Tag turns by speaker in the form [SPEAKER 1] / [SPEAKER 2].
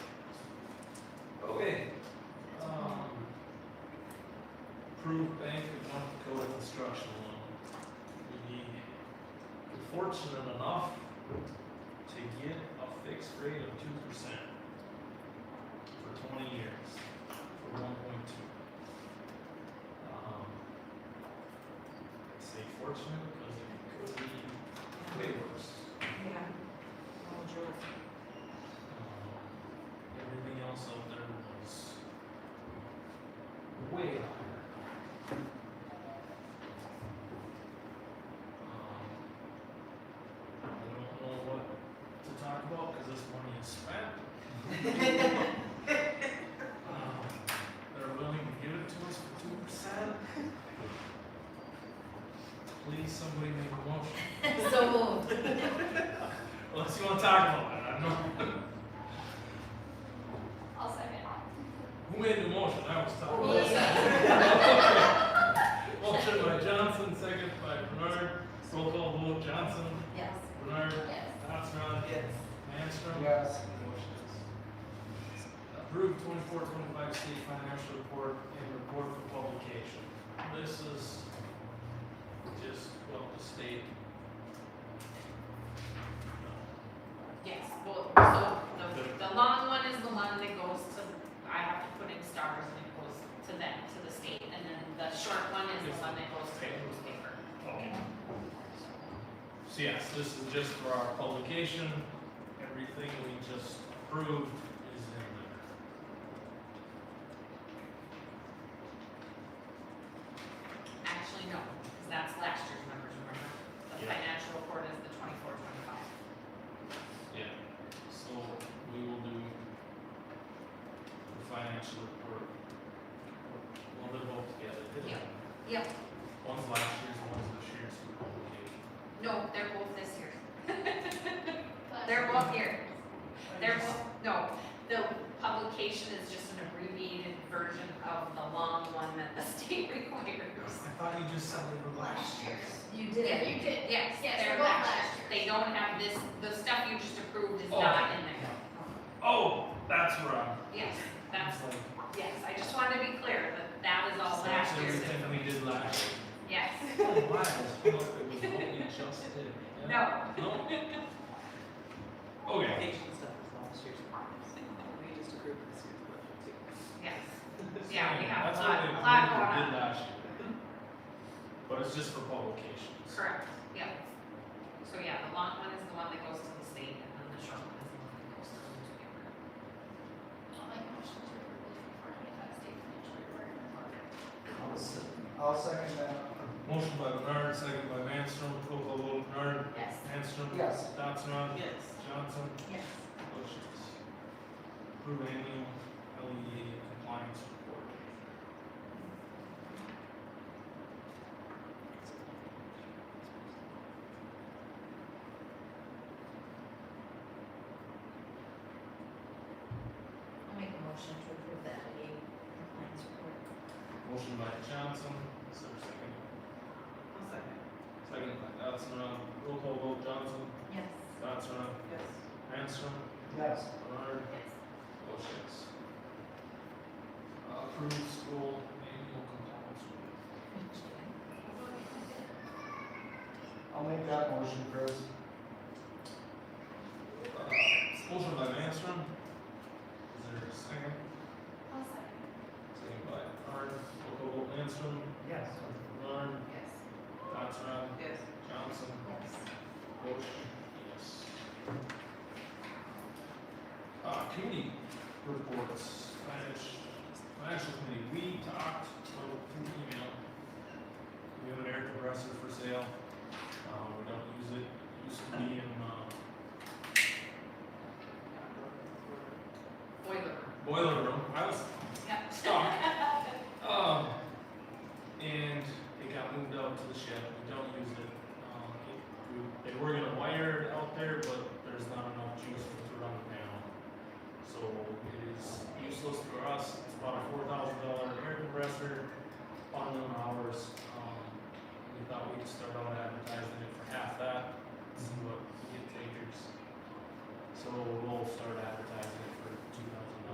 [SPEAKER 1] um, construction loan. We need, we're fortunate enough to get a fixed rate of two percent for twenty years, for one point two. I say fortunate because it could be way worse.
[SPEAKER 2] Yeah. Oh, George.
[SPEAKER 1] Um, Everything else out there was way higher. Um, I don't know what to talk about because this money is spent. Um, They're willing to give it to us for two percent. Please, somebody make a motion.
[SPEAKER 2] So moved.
[SPEAKER 1] Unless you want to talk about it, I don't know.
[SPEAKER 3] I'll second.
[SPEAKER 1] Who made the motion? I was talking. Motion by Johnson, second by Bernard. Roll call vote, Johnson,
[SPEAKER 2] Yes.
[SPEAKER 1] Bernard,
[SPEAKER 3] Yes.
[SPEAKER 1] Oxnard,
[SPEAKER 4] Yes.
[SPEAKER 1] Manstrom.
[SPEAKER 4] Yes.
[SPEAKER 1] Motions. Approved 24-25 state financial report and report for publication. This is just, well, the state.
[SPEAKER 2] Yes, well, so the, the long one is the one that goes to, I have to put in stars and it goes to them, to the state. And then the short one is the one that goes to the newspaper.
[SPEAKER 1] Okay. Um, So yes, this is just for our publication. Everything we just approved is in there.
[SPEAKER 2] Actually, no, because that's last year's numbers, remember? The
[SPEAKER 1] Yeah.
[SPEAKER 2] financial report is the twenty-four, twenty-five.
[SPEAKER 1] Yeah, so we will do the financial report. Well, they're both together.
[SPEAKER 2] Yeah. Yep,
[SPEAKER 1] One's last year's, one's this year's for publication.
[SPEAKER 2] no, they're both this year.
[SPEAKER 3] But-
[SPEAKER 2] They're both here. They're both, no, the publication is just an abbreviated version of the long one that the state requires.
[SPEAKER 1] I thought you just said they were last year's.
[SPEAKER 3] You
[SPEAKER 2] did.
[SPEAKER 3] Yeah, you did.
[SPEAKER 2] Yes,
[SPEAKER 3] Yes,
[SPEAKER 2] they're
[SPEAKER 3] they're both
[SPEAKER 2] matched.
[SPEAKER 3] last year's.
[SPEAKER 2] They don't have this, the stuff you just approved is
[SPEAKER 1] Oh.
[SPEAKER 2] not in there.
[SPEAKER 1] Oh, that's where I'm.
[SPEAKER 2] Yes, that's,
[SPEAKER 1] it's like,
[SPEAKER 2] yes, I just wanted to be clear that that is all
[SPEAKER 1] so
[SPEAKER 2] last year's.
[SPEAKER 1] Everything we did last year.
[SPEAKER 2] Yes,
[SPEAKER 1] Oh, wow, I thought it was what we just did. Yeah.
[SPEAKER 2] no,
[SPEAKER 1] No? Okay,
[SPEAKER 4] Patient stuff is last year's promise. We just approved this year's budget too.
[SPEAKER 2] yes, Yeah, we have a
[SPEAKER 1] That's
[SPEAKER 2] lot-
[SPEAKER 1] what we
[SPEAKER 2] a lot
[SPEAKER 1] approved
[SPEAKER 2] going
[SPEAKER 1] and
[SPEAKER 2] on.
[SPEAKER 1] Did last year. But it's just for publications.
[SPEAKER 2] correct, yep. So yeah, the long one is the one that goes to the state and then the short one is the one that goes to the newspaper.
[SPEAKER 3] I'll make a motion to approve the report twenty-five state financial report and report.
[SPEAKER 4] I'll second that.
[SPEAKER 1] Motion by Bernard, second by Manstrom, roll call vote Bernard,
[SPEAKER 3] Yes.
[SPEAKER 1] Manstrom.
[SPEAKER 4] Yes.
[SPEAKER 1] Datsram,
[SPEAKER 4] Yes.
[SPEAKER 1] Johnson,
[SPEAKER 3] Yes.
[SPEAKER 1] motions. Approve annual LEA E compliance report.
[SPEAKER 3] I'll make a motion to approve that A compliance report.
[SPEAKER 1] Motion by Johnson, is there a second?
[SPEAKER 4] I'll second.
[SPEAKER 1] Second by Datsram, roll call vote Johnson,
[SPEAKER 3] Yes.
[SPEAKER 1] Datsram,
[SPEAKER 4] Yes.
[SPEAKER 1] Manstrom,
[SPEAKER 4] Yes.
[SPEAKER 1] Bernard,
[SPEAKER 3] Yes.
[SPEAKER 1] motions. Uh, Approve school annual compliance report.
[SPEAKER 4] I'll make that motion, Chris.
[SPEAKER 1] Uh, Motion by Manstrom. Is there a second?
[SPEAKER 3] I'll second.
[SPEAKER 1] Second by Arn, local vote Manstrom,
[SPEAKER 4] Yes.
[SPEAKER 1] Arn,
[SPEAKER 3] Yes.
[SPEAKER 1] Datsram,
[SPEAKER 4] Yes.
[SPEAKER 1] Johnson,
[SPEAKER 3] Yes.
[SPEAKER 1] Bush, yes. Uh, committee reports, financial, financial committee, we talked over through email. We have an air compressor for sale, uh, we don't use it, it used to be in, uh,
[SPEAKER 2] Boiler room,
[SPEAKER 1] boiler room, I was
[SPEAKER 2] yep.
[SPEAKER 1] stock. Um, and it got moved out to the shed, we don't use it. Um, it- we- They were gonna wire it out there, but there's not enough juice for it to run it down. So it is useless for us, it's about a four thousand dollar air compressor, bundling hours. Um, we thought we'd start out advertising it for half that, see what we get takers. So we'll start advertising it